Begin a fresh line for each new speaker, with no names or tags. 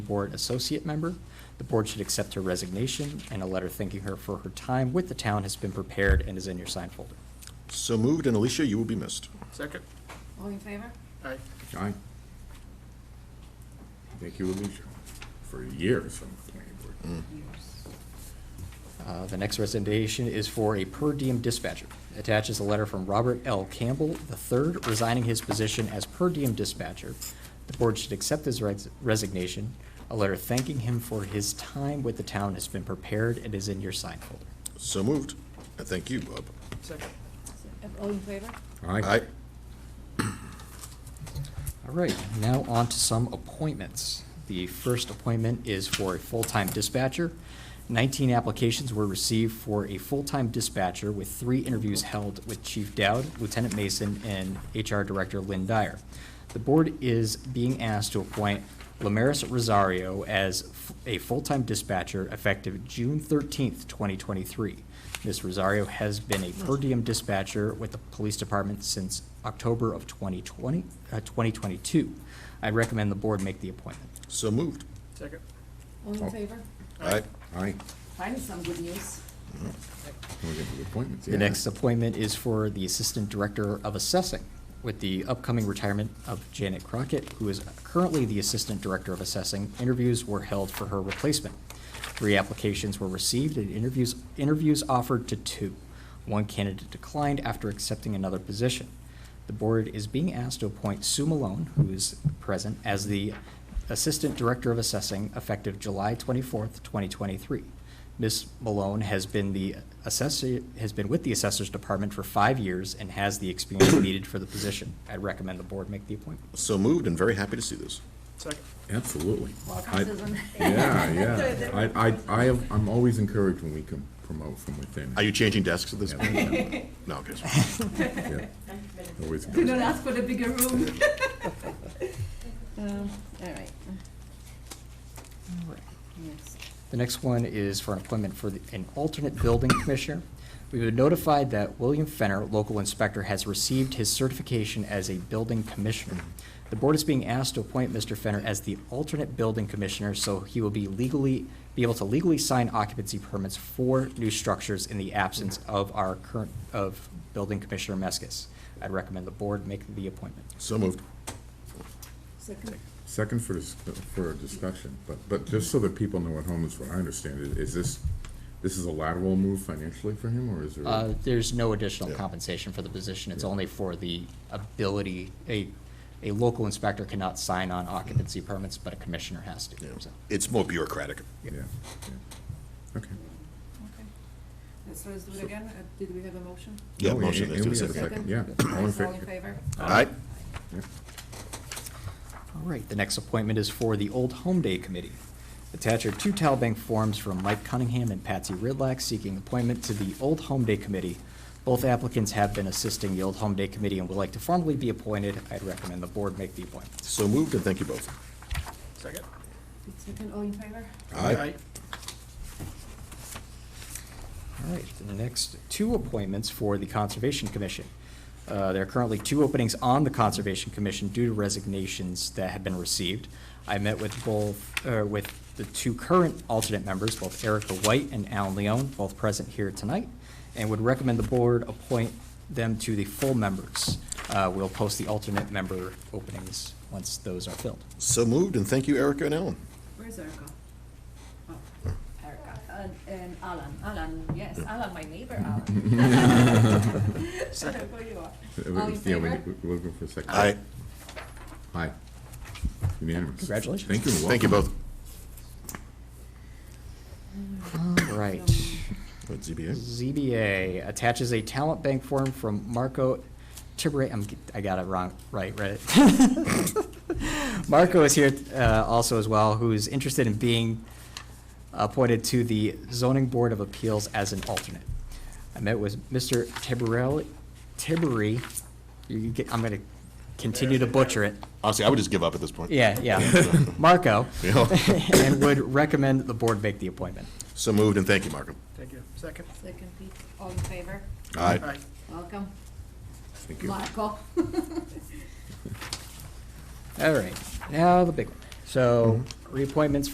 Board Associate Member. The board should accept her resignation, and a letter thanking her for her time with the town has been prepared and is in your sign folder.
So moved, and Alicia, you will be missed.
Second?
All in favor?
Aye.
Aye. Thank you, Alicia, for years on the planning board.
Mm.
Yes.
Uh, The next recommendation is for a per diem dispatcher. Attaches a letter from Robert L. Campbell III resigning his position as per diem dispatcher. The board should accept his res- resignation. A letter thanking him for his time with the town has been prepared and is in your sign folder.
So moved, and thank you, Bob.
Second?
All in favor?
Aye.
All right, now on to some appointments. The first appointment is for a full-time dispatcher. Nineteen applications were received for a full-time dispatcher with three interviews held with Chief Dowd, Lieutenant Mason, and HR Director Lynn Dyer. The board is being asked to appoint Lamaris Rosario as f- a full-time dispatcher effective June thirteenth, twenty twenty-three. Ms. Rosario has been a per diem dispatcher with the police department since October of 2020, uh, 2022. I recommend the board make the appointment.
So moved.
Second?
All
Oh.
in favor?
Aye.
Aye.
Finally, some good news.
We're getting to appointments.
The next appointment is for the Assistant Director of Assessing, with the upcoming retirement of Janet Crockett, who is currently the Assistant Director of Assessing. Interviews were held for her replacement. Three applications were received and interviews, interviews offered to two. One candidate declined after accepting another position. The board is being asked to appoint Sue Malone, who is present, as the Assistant Director of Assessing effective July twenty-fourth, twenty twenty-three. Ms. Malone has been the assessor, has been with the Assessor's Department for five years and has the experience needed for the position. I recommend the board make the appointment.
So moved, and very happy to see this.
Second?
Absolutely.
Welcome,
I-
Susan.
Yeah, yeah. I, I, I am, I'm always encouraged when we can promote from within.
Are you changing desks at this
Yeah.
point? No, okay.
Yeah. Always.
Could not ask for the bigger room. Um, All right, yes.
The next one is for an appointment for the- an alternate building commissioner. We've been notified that William Fenner, local inspector, has received his certification as a building commissioner. The board is being asked to appoint Mr. Fenner as the alternate building commissioner, so he will be legally, be able to legally sign occupancy permits for new structures in the absence of our current, of building commissioner Meskis. I'd recommend the board make the appointment.
So moved.
Second,
Second for, dis- for discussion, but, but just so that people know at home, is what I understand, is- is this, this is a lateral move financially for him, or is there?
Uh, There's no additional
Yeah.
compensation for the position, it's
Yeah.
only for the ability, a, a local inspector cannot sign on occupancy permits, but a commissioner has to,
Yeah.
so.
It's more bureaucratic.
Yeah, yeah. okay.
okay. Let's, let's do it again. Uh, Did we have a motion?
Yeah,
No,
motion,
and-
let's do
and
a
we have
second.
Oh, Yeah. all in
Yes, All in
favor.
favor?
Aye.
Yeah.
All right, the next appointment is for the Old Home Day Committee. Attach are two Talbank forms from Mike Cunningham and Patsy Ridlack seeking appointment to the Old Home Day Committee. Both applicants have been assisting the Old Home Day Committee and would like to formally be appointed, I'd recommend the board make the appointment.
So moved, and thank you both.
Second?
Second, all in favor?
All right, the next two appointments for the Conservation Commission. Uh, There are currently two openings on the Conservation Commission due to resignations that have been received. I met with both, uh, with the two current alternate members, both Erica White and Alan Leon, both present here tonight, and would recommend the board appoint them to the full members. Uh, We'll post the alternate member openings once those are filled.
So moved, and thank you, Erica and Alan.
Where's Erica? Oh, Erica, and, and Alan, Alan, yes, Alan, my neighbor, Alan. Where you are. All in
Yeah, we-
favor?
We're looking for a second.
Aye.
Aye. Unanimous.
Congratulations.
Thank you. and
Thank you
welcome.
both.
All right.
What, ZBA?
ZBA attaches a talent bank form from Marco Tibere, I'm, I got it wrong, right, right? Marco is here, uh, also as well, who is interested in being appointed to the zoning board of appeals as an alternate. I met with Mr. Tiberelli, Tiberi, you get, I'm gonna continue to butcher it.
Honestly, I would just give up at this point.
Yeah, yeah, Marco,
Yeah.
and would recommend the board make the appointment.
So moved, and thank you, Markham.
Thank you. Second?
Second, Pete, all in favor?
Aye.
Welcome,
Thank you.
Marco.
All right, now the big one. So reappointments